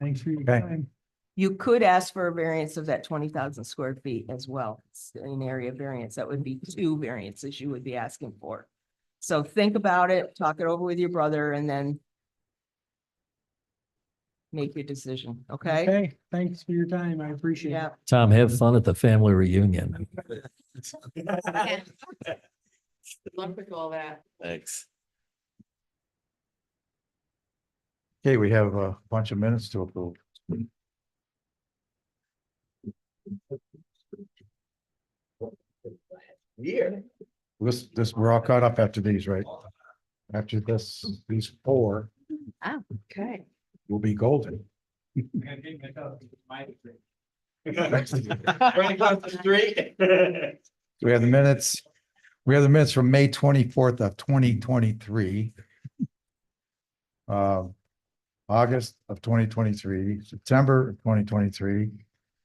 Thanks for your Okay. time. You could ask for a variance of that twenty thousand square feet as well, It's an area variance. That would be two variances you would be asking for. So think about it, talk it over with your brother and then make your decision, okay? Okay, thanks for your time. I appreciate Yeah, it. Tom, have fun at the family reunion. Love to all that. Thanks. Okay, we have a bunch of minutes to approve. Year. This, this, we're all caught up after these, right? After this, these four Okay. will be golden. Right across the street. We have the minutes, we have the minutes from May twenty-fourth of twenty twenty-three. Uh, August of twenty twenty-three, September of twenty twenty-three,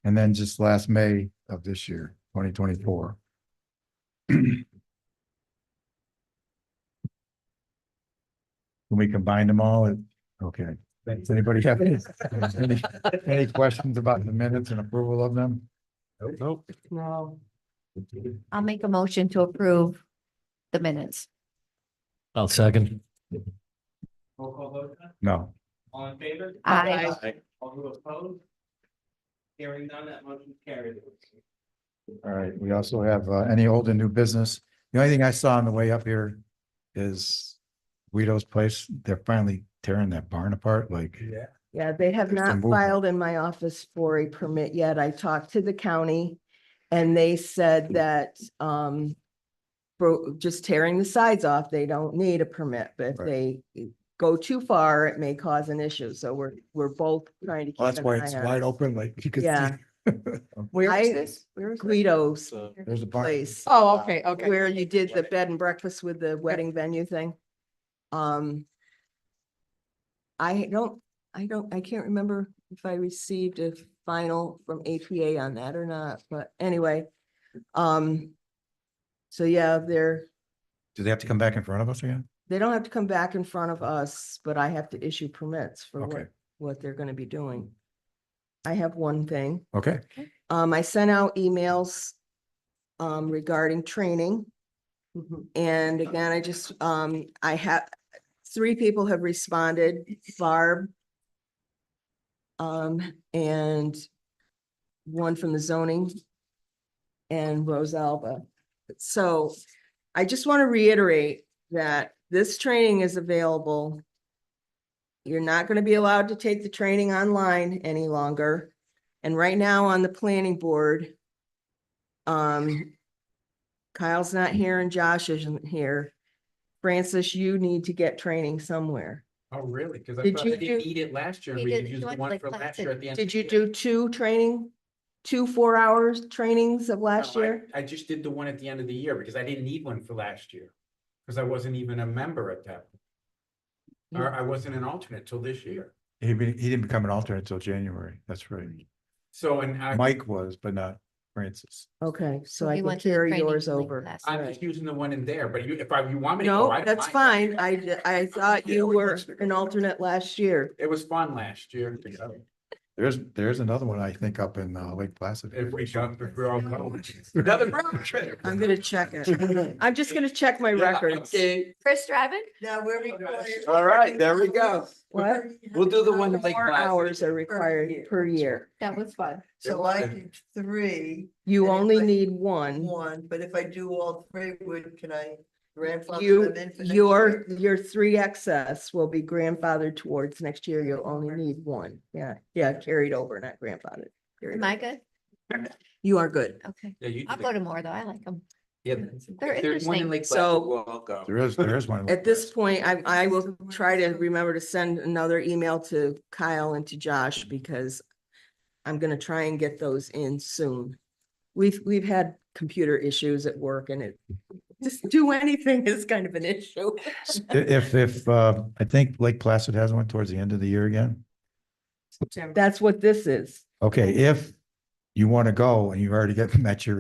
and then just last May of this year, twenty twenty-four. Can we combine them all? Okay. Does anybody have any, any- any questions about the minutes and approval of them? Nope. no, I'll make a motion to approve the minutes. I'll second. Roll call vote, No. all in favor? Aye. All who oppose? Hearing none, that motion carries. All right, we also have uh, any old and new business. The only thing I saw on the way up here is Guido's place. They're finally tearing that barn apart, like. Yeah. yeah, they have There's some not movement. filed in my office for a permit yet. I talked to the county and they Hmm. said that, um, for just tearing the sides off, they don't need a permit, but if they go too far, it may cause an issue. So we're, we're both trying to keep Well, That's an why eye it's on wide open, like you can Yeah. see. Where I- is this? Where is this? Guido's There's a barn. place. Oh, okay, okay. Where you did the bed and breakfast with the wedding venue thing. Um. I don't, I don't, I can't remember if I received a final from APA on that or not, but anyway. Um. So yeah, they're, Do they have to come back in front of us again? they don't have to come back in front of us, but I have to issue permits for Okay. what, what they're gonna be doing. I have one thing. Okay, Um, I sent out emails um regarding training. Mm-hmm. And again, I just, um, I have, three people have responded, Barb. Um, and one from the zoning. And Rose Alba. So I just want to reiterate that this training is available. You're not going to be allowed to take the training online any longer. And right now on the planning board. Um. Kyle's not here and Josh isn't here. Francis, you need to get training somewhere. Oh, really? Cause Did you do- eat it last year. He We did- could he use the went to one the for last class year and- at the end. Did you do two training? Two four hours trainings of No, last I- year? I just did the one at the end of the year because I didn't need one for last year. Cause I wasn't even a member at that. You- Or I wasn't an alternate till this year. he, be- he didn't become an alternate until January. That's right. So, and I. Mike was, but not Francis. Okay, so So I he can went to the carry training yours link over. last All I'm right. just using the one in there, but you, if I, you want me to go, I No, don't that's mind. fine. I, d- I thought you were an alternate last year. It was fun last year. to go. There's, there's another one, I think, up in uh, Lake Placid. If we jump, if we're all going. Another road trip. I'm gonna check it. I'm just gonna check my records. Okay. Chris driving? Now we're recording. All right, there we go. What? We'll do the one in Lake Four Placid. hours are required per year. That was fun. So I did three, You And if only I- need one. one, but if I do all three, would, can I grandfather You, them in? for next your, year? your three excess will be grandfathered towards next year. You'll only need one. Yeah, yeah, carried over, not grandfathered. Carried Am over. I good? You are good. Okay. Yeah, you. I'll did go it. to more though. I like them. Yeah. They're If there's one in interesting. Lake Placid, So- We'll all go. There is, there is one. in Lake At this Placid. point, I, I will try to remember to send another email to Kyle and to Josh because I'm gonna try and get those in soon. We've, we've had computer issues at work and it, just do anything is kind of an issue. I- If, if, uh, I think Lake Placid has one towards the end of the year again. That's what this is. Okay, if you want to go and you've already got, met your